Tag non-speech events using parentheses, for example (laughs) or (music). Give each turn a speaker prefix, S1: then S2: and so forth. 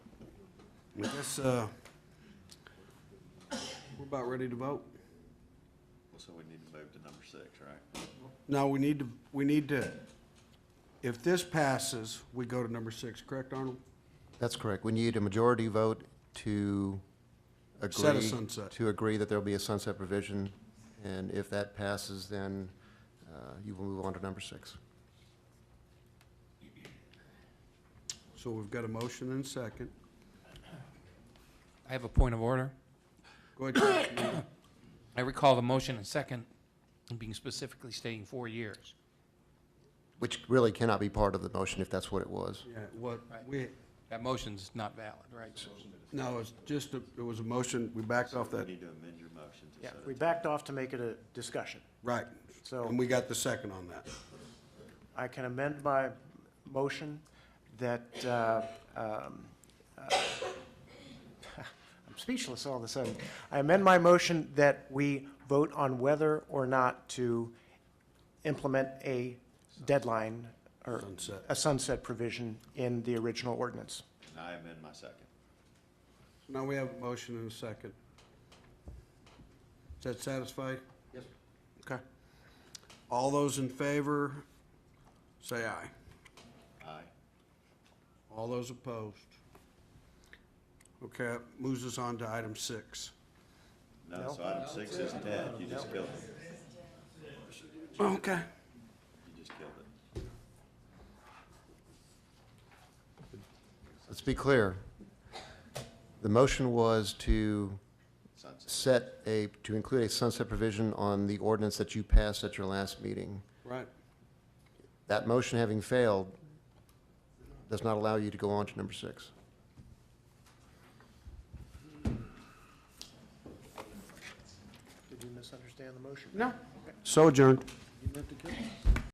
S1: I guess, uh, we're about ready to vote.
S2: Well, so we need to move to number six, right?
S1: No, we need to, we need to, if this passes, we go to number six, correct, Arnold?
S3: That's correct. We need a majority vote to agree.
S1: Set a sunset.
S3: To agree that there'll be a sunset provision, and if that passes, then uh, you will move on to number six.
S1: So we've got a motion and second.
S4: I have a point of order.
S1: Go ahead, Councilman.
S4: I recall the motion and second being specifically stating four years.
S3: Which really cannot be part of the motion if that's what it was.
S1: Yeah, what, we,
S4: That motion's not valid, right?
S1: no, it's just, a- it was a motion, we backed off
S2: You
S1: that,
S2: need to amend your motion to
S4: Yeah,
S2: set
S5: We
S2: it.
S5: backed off to make it a discussion.
S1: right.
S5: So-
S1: And we got the second on that.
S5: I can amend my motion that, uh, um, uh, (laughs) I'm speechless all of a sudden. I amend my motion that we vote on whether or not to implement a deadline or
S1: Sunset.
S5: a sunset provision in the original ordinance.
S2: And I amend my second.
S1: Now we have a motion and a second. Is that satisfied? Yes. Okay. All those in favor, say aye.
S2: Aye.
S1: All those opposed? Okay, that moves us on to item six.
S2: No, so item six is dead. You just killed it.
S1: Okay.
S2: You just killed it.
S3: Let's be clear. The motion was to
S2: Sunset.
S3: set a, to include a sunset provision on the ordinance that you passed at your last meeting.
S1: Right,
S3: That motion having failed does not allow you to go on to number six.
S5: Did you misunderstand the motion?
S1: so adjourned.